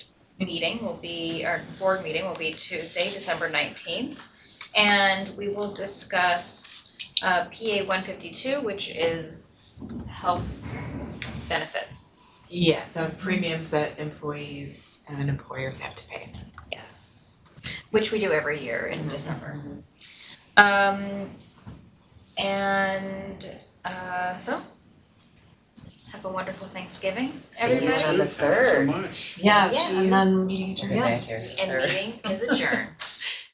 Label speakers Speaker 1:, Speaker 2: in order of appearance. Speaker 1: meeting will be, our board meeting will be Tuesday, December nineteenth. And we will discuss uh PA one fifty-two, which is health benefits.
Speaker 2: Yeah, the premiums that employees and employers have to pay.
Speaker 1: Yes. Which we do every year
Speaker 3: Mm-hmm.
Speaker 1: in December. Um, and, uh, so, have a wonderful Thanksgiving,
Speaker 3: See you
Speaker 1: everybody,
Speaker 3: on the
Speaker 4: Thanks so
Speaker 3: third.
Speaker 4: much.
Speaker 3: Yes,
Speaker 1: Yes.
Speaker 3: and then meeting adjourned. We'll be back here the
Speaker 1: and
Speaker 3: third.
Speaker 1: meeting is adjourned.